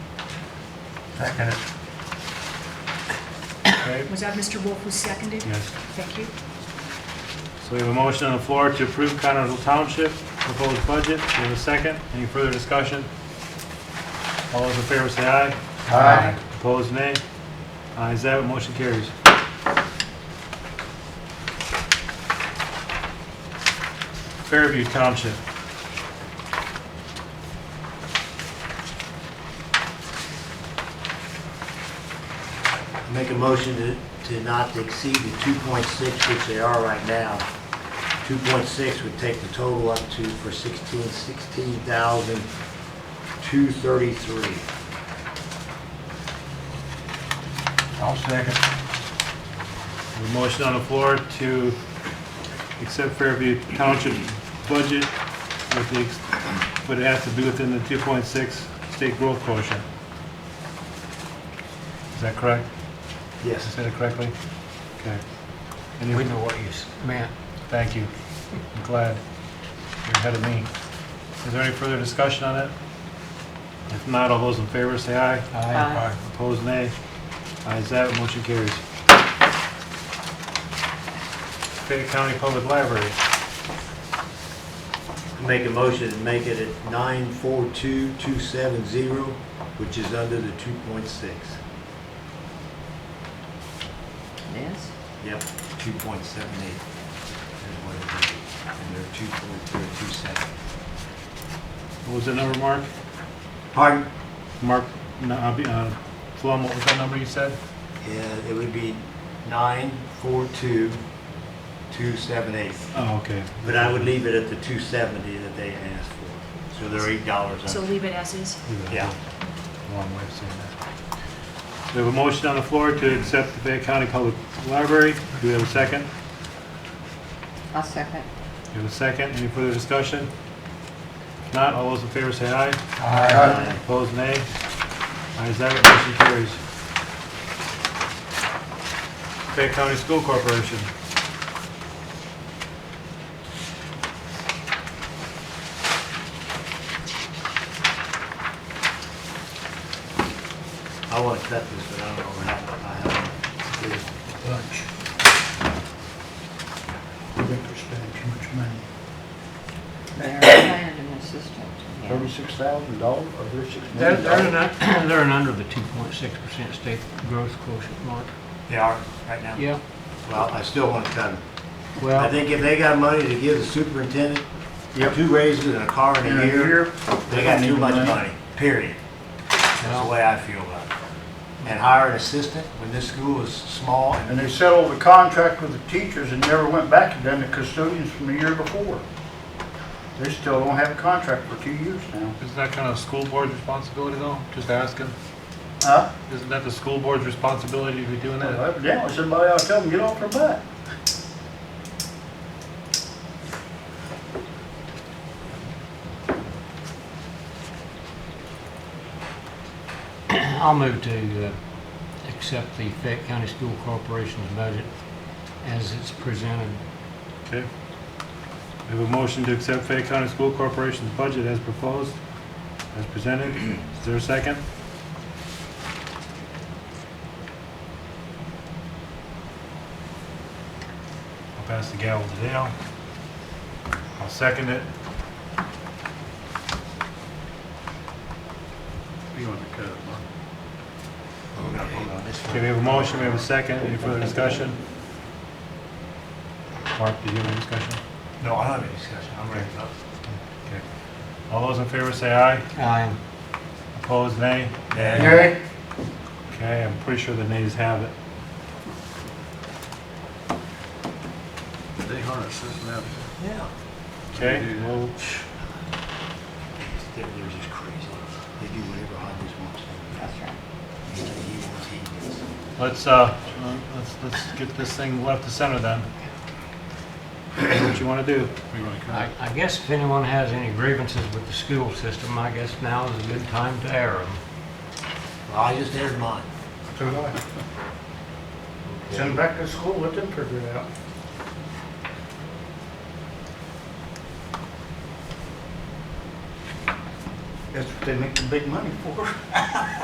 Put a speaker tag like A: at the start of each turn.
A: Second it,
B: Okay,
C: Was that Mr. Wolf who seconded?
B: yes.
C: Thank you.
B: So we have a motion on the floor to approve Connersville Township proposed budget. We have a second. Any further discussion? All those in favor say aye.
A: Aye.
B: Opposed, nay. Ayes have it, motion carries. Fairview Township.
D: Make a motion to, to not exceed the two point six, which they are right now. Two point six would take the total up to, for sixteen, sixteen thousand, two thirty-three.
A: I'll second.
B: A motion on the floor to accept Fairview Township budget with the, ex- but it has to be within the 2.6 state growth quotient. Is that correct? Did I
D: Yes.
B: say that correctly? Okay. Any-
A: We know what you s- meant.
B: Thank you. I'm glad you're ahead of me. Is there any further discussion on it? If not, all those in favor say aye.
A: Aye.
B: Opposed, nay. Ayes have it, motion carries. Fayette County Public Library.
D: Make a motion to make it at nine four two, two seven zero, which is under the two point six.
E: Yes?
D: Yep, two point seven eight is what it is. And they're two point three, two seven.
B: What was the number, Mark?
D: Pardon?
B: Mark, no, I'll be, uh, Flum, what was that number you said?
D: Yeah, it would be nine four two, two seven eight.
B: Oh, okay.
D: But I would leave it at the two seventy that they asked for, so they're eight dollars
C: So
D: under.
C: leave it as is.
D: Yeah,
B: Long way of saying that. We have a motion on the floor to accept the Fayette County Public Library. Do we have a second?
E: I'll second.
B: We have a second. Any further discussion? If not, all those in favor say aye.
D: Aye.
B: Opposed, nay. Ayes have it, motion carries. Fayette County School Corporation.
D: I want to cut this, but I don't know how, I have to do it.
A: Bunch. I think we're spending too much money.
E: They're hired an assistant. yeah.
F: Thirty-six thousand dollars or thirty-six
A: They're,
F: million
A: they're
F: dollars?
A: not, they're not under the 2.6% state growth quotient, Mark.
D: They are, right now?
A: Yeah.
D: Well, I still want to cut them. I
A: Well,
D: think if they got money to give the superintendent,
A: Yep.
D: two raises and a car in a year, they got too
A: need
D: much
A: money.
D: money, period. That's the way I feel about it. And hire an assistant when this school is small and
F: And they settled the contract with the teachers and never went back and done the custodians from the year before. They still don't have a contract for two years now.
B: Isn't that kind of school board's responsibility though? Just asking.
F: Huh?
B: Isn't that the school board's responsibility to be doing
F: Well, Evidently, somebody ought to tell them, get off their butt.
A: I'll move to uh, accept the Fayette County School Corporation's budget as it's presented.
B: Okay. We have a motion to accept Fayette County School Corporation's budget as proposed, as presented. Is there a second? I'll pass the gavel to Dale. I'll second it.
F: You want to cut it, Mark?
B: Okay, we have a motion, we have a second. Any further discussion? Mark, did you have any discussion?
D: No, I don't have any discussion, I'm ready to vote.
B: Okay. All those in favor say aye.
A: Aye.
B: Opposed, nay.
F: Gary?
B: Okay, I'm pretty sure the nays have it.
F: They aren't assisting that.
D: Yeah.
B: Okay, well,
D: They're, they're just crazy. They do whatever Hodges wants them
E: That's right.
D: to. do. He wants, he gets.
B: let's, uh, let's, let's get this thing left to center then. What you wanna do?
A: I I guess if anyone has any grievances with the school system, I guess now is a good time to air them.
D: Well, I just aired mine.
F: So do I. Send them back to school, let them figure it out. That's what they make the big money for.